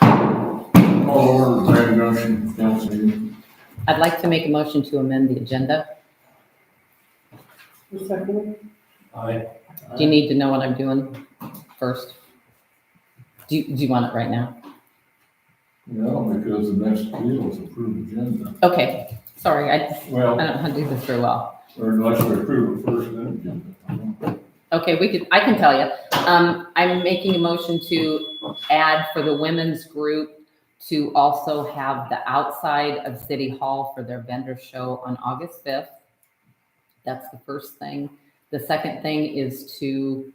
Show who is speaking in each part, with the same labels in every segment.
Speaker 1: Call over the planning motion, council meeting.
Speaker 2: I'd like to make a motion to amend the agenda.
Speaker 1: Aye.
Speaker 2: Do you need to know what I'm doing first? Do you, do you want it right now?
Speaker 1: No, because the next deal is approved agenda.
Speaker 2: Okay, sorry, I, I
Speaker 1: Well,
Speaker 2: don't know how to do this very well.
Speaker 1: or unless we approve it first, then agenda.
Speaker 2: Okay, we could, I can tell you. Um, I'm making a motion to add for the women's group to also have the outside of City Hall for their vendor show on August 5th. That's the first thing. The second thing is to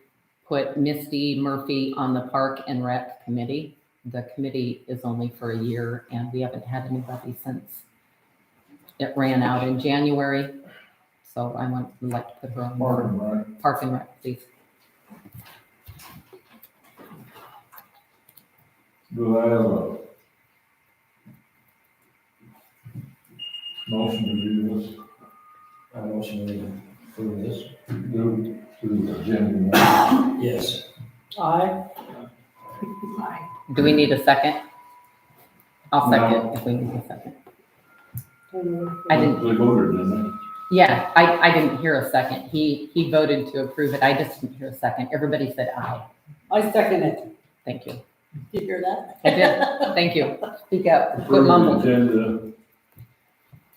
Speaker 2: put Misty Murphy on the Park and Rec Committee. The committee is only for a year and we haven't had anybody since it ran out in January. So I want, would like to put her on
Speaker 1: Mark and Ryan.
Speaker 2: Park and Rec, please.
Speaker 1: Do I have a motion to do this,
Speaker 3: I motion to approve this.
Speaker 1: do to the agenda?
Speaker 3: Yes.
Speaker 4: Aye.
Speaker 2: Do we need a second? I'll
Speaker 1: No.
Speaker 2: second if we need a second. I didn't-
Speaker 1: They voted, didn't
Speaker 2: Yeah, I, I didn't hear a second. He, he voted to approve it. I just didn't hear a second. Everybody said aye.
Speaker 4: I second it.
Speaker 2: Thank you.
Speaker 4: Did you hear that?
Speaker 2: I did. Thank you. Speak
Speaker 1: they?
Speaker 2: up. Quit
Speaker 1: Approve
Speaker 2: mumbling.
Speaker 1: the agenda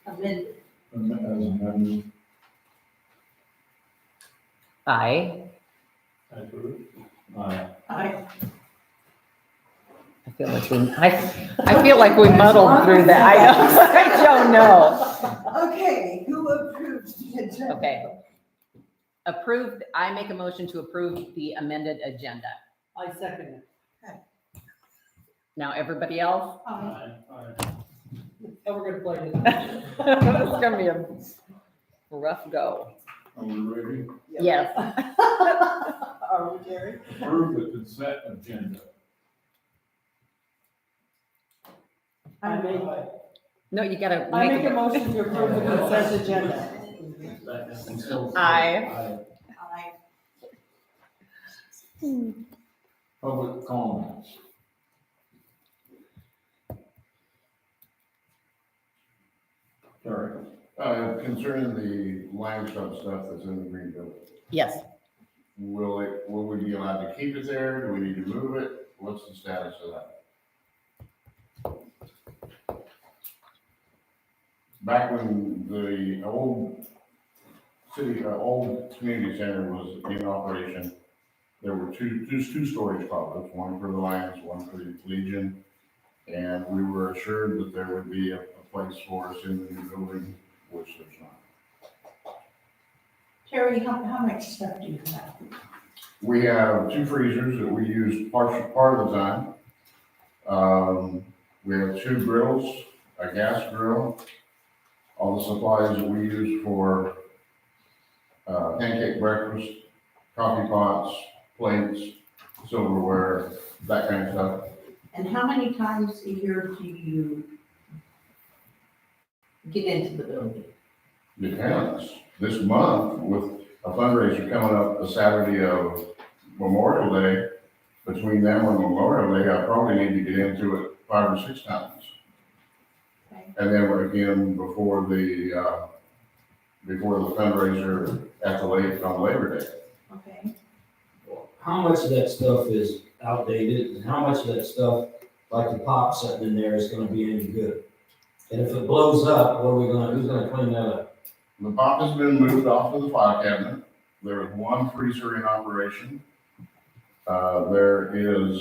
Speaker 4: Amended.
Speaker 1: am- as amended.
Speaker 2: Aye.
Speaker 1: Aye.
Speaker 4: Aye.
Speaker 2: I feel like we, I, I feel like we muddled through that. I don't, I don't know.
Speaker 5: Okay, who approves the agenda?
Speaker 2: Okay. Approved, I make a motion to approve the amended agenda.
Speaker 4: I second it.
Speaker 2: Now, everybody else?
Speaker 5: Um,
Speaker 4: Oh, we're gonna play it.
Speaker 2: It's gonna be a rough go.
Speaker 1: Are we ready?
Speaker 2: Yes.
Speaker 5: Are we, Jerry?
Speaker 1: Approve the consent agenda.
Speaker 4: I make,
Speaker 2: No, you gotta
Speaker 4: I make a
Speaker 2: make
Speaker 4: motion to approve the consent agenda.
Speaker 2: Aye.
Speaker 5: Aye.
Speaker 1: Public comments.
Speaker 6: Sorry, uh, concerning the Lions Club stuff that's in the green building,
Speaker 2: Yes.
Speaker 6: will it, will we be allowed to keep it there? Do we need to move it? What's the status of that? Back when the old city, uh, old community center was in operation, there were two, two, two storage closets, one for the Lions, one for the Legion. And we were assured that there would be a, a place for us in the new building, which there's not.
Speaker 5: Terry, how, how much stuff do you have?
Speaker 6: We have two freezers that we use part, part of the time. Um, we have two grills, a gas grill, all the supplies that we use for, uh, pancake breakfast, coffee pots, plates, silverware, that kind of stuff.
Speaker 5: And how many times a year do you get into the building?
Speaker 6: Depends. This month with a fundraiser coming up the Saturday of Memorial Day, between now and Memorial Day, I probably need to get into it five or six times.
Speaker 5: Okay.
Speaker 6: And then again, before the, uh, before the fundraiser at the lake on Labor Day.
Speaker 5: Okay,
Speaker 3: How much of that stuff is outdated and how much of that stuff, like the pop sitting in there, is gonna be any good? And if it blows up, what are we gonna, who's gonna clean that up?
Speaker 6: The pop has been moved off to the file cabinet. There is one freezer in operation. Uh, there is